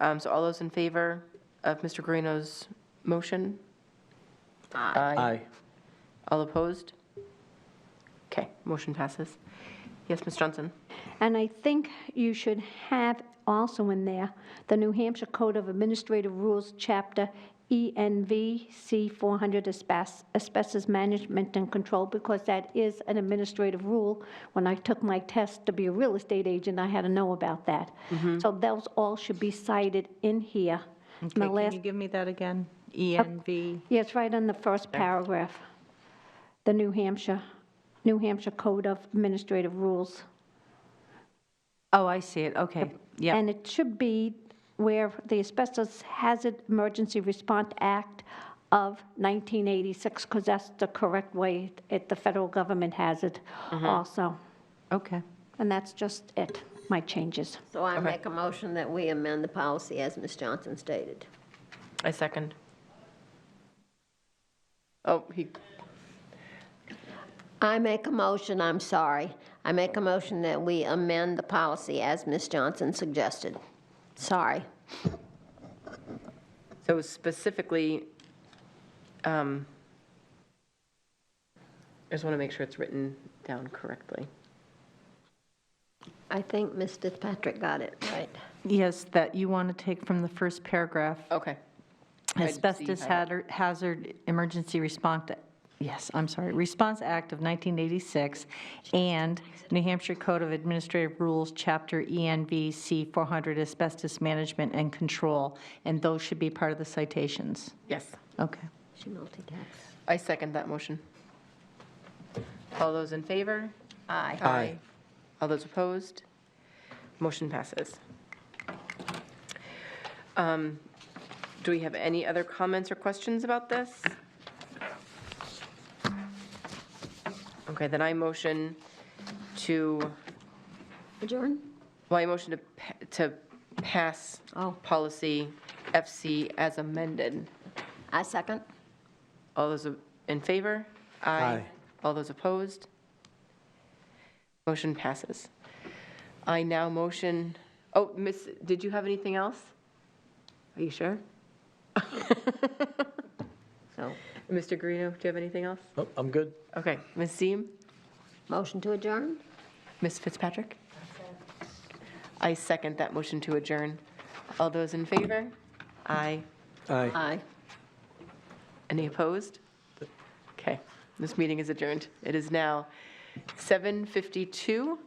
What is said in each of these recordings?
Um, So all those in favor of Mr. Guarino's motion? Aye. All opposed? Okay, motion passes. Yes, Ms. Johnson? And I think you should have also in there, the New Hampshire Code of Administrative Rules, Chapter ENV C 400, asbes- asbestos management and control, because that is an administrative rule. When I took my test to be a real estate agent, I had to know about that. So those all should be cited in here. And the Okay, can last- you give me that again? ENV, yeah, it's right on the first paragraph, the New Hampshire, New Hampshire Code of Administrative Rules. Oh, I see it, okay, yeah. And it should be where the Asbestos Hazard Emergency Response Act of 1986, because that's the correct way it, the federal government has it also. okay. And that's just it, my changes. So I make a motion that we amend the policy as Ms. Johnson stated. I second. Oh, he, I make a motion, I'm sorry. I make a motion that we amend the policy as Ms. Johnson suggested. Sorry. so specifically, um, I just want to make sure it's written down correctly. I think Ms. Fitzpatrick got it right. Yes, that you want to take from the first paragraph, Okay. I'd see asbestos how that- hazard- hazard emergency response, yes, I'm sorry, Response Act of 1986 and New Hampshire Code of Administrative Rules, Chapter ENV C 400 asbestos management and control, and those should be part of the citations. Yes, Okay. She multitasks. I second that motion. All those in favor? Aye. Aye. All those opposed? Motion passes. Um, Do we have any other comments or questions about this? Okay, then I motion to, Adjourn? well, I motion to, pa- to pass Oh. policy FC as amended. I second. All those in favor? Aye. All those opposed? Motion passes. I now motion, oh, Miss, did you have anything else? Are you sure? So, Mr. Guarino, do you have anything else? Oh, I'm good. Okay, Ms. Seem, motion to adjourn? Ms. Fitzpatrick? I second that motion to adjourn. All those in favor? Aye. Aye. Aye. Any opposed? Okay, this meeting is adjourned. It is now 7:52.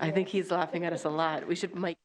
I think he's laughing at us a lot. We should mic